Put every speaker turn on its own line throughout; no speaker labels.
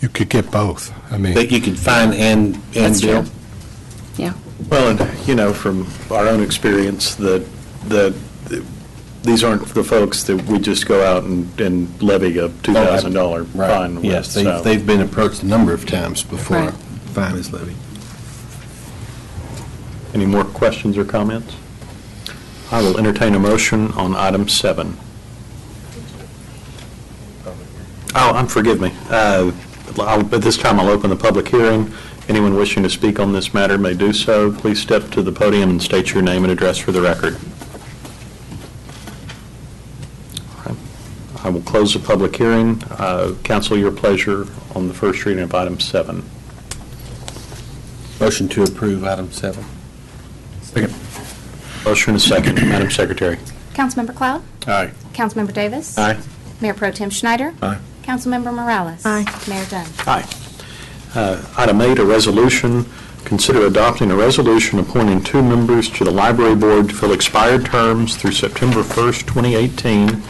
You could get both. I mean,
That you could find and, and
That's
bill?
true. Yeah.
Well, and, you know, from our own experience, that, that, these aren't the folks that we just go out and, and levy a $2,000
Right.
fine with,
Yes, they've,
so.
they've been approached a number of times before
Right.
fine is levied.
Any more questions or comments? I will entertain a motion on item seven. Oh, I'm, forgive me. Uh, I'll- At this time, I'll open the public hearing. Anyone wishing to speak on this matter may do so. Please step to the podium and state your name and address for the record. All right. I will close the public hearing. Uh, Counsel, your pleasure on the first reading of item seven.
Motion to approve item seven.
Motion and second, Madam Secretary.
Councilmember Cloud?
Aye.
Councilmember Davis?
Aye.
Mayor Pro Tem Schneider?
Aye.
Councilmember Morales?
Aye.
Mayor Dunn?
Aye. Uh, Item eight, a resolution, consider adopting a resolution appointing two members to the library board to fill expired terms through September 1st, 2018.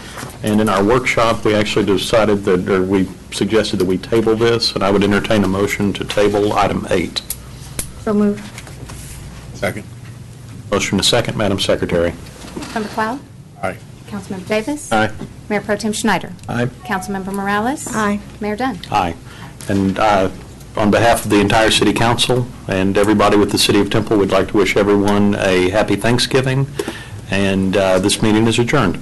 And in our workshop, we actually decided that, or we suggested that we table this, and I would entertain a motion to table item eight.
So moved.
second.
Motion to second, Madam Secretary.
Councilmember Cloud?
Aye.
Councilmember Davis?
Aye.
Mayor Pro Tem Schneider?
Aye.
Councilmember Morales?
Aye.
Mayor Dunn?
Aye. And uh, on behalf of the entire city council and everybody with the city of Temple, we'd like to wish everyone a happy Thanksgiving, and uh, this meeting is adjourned.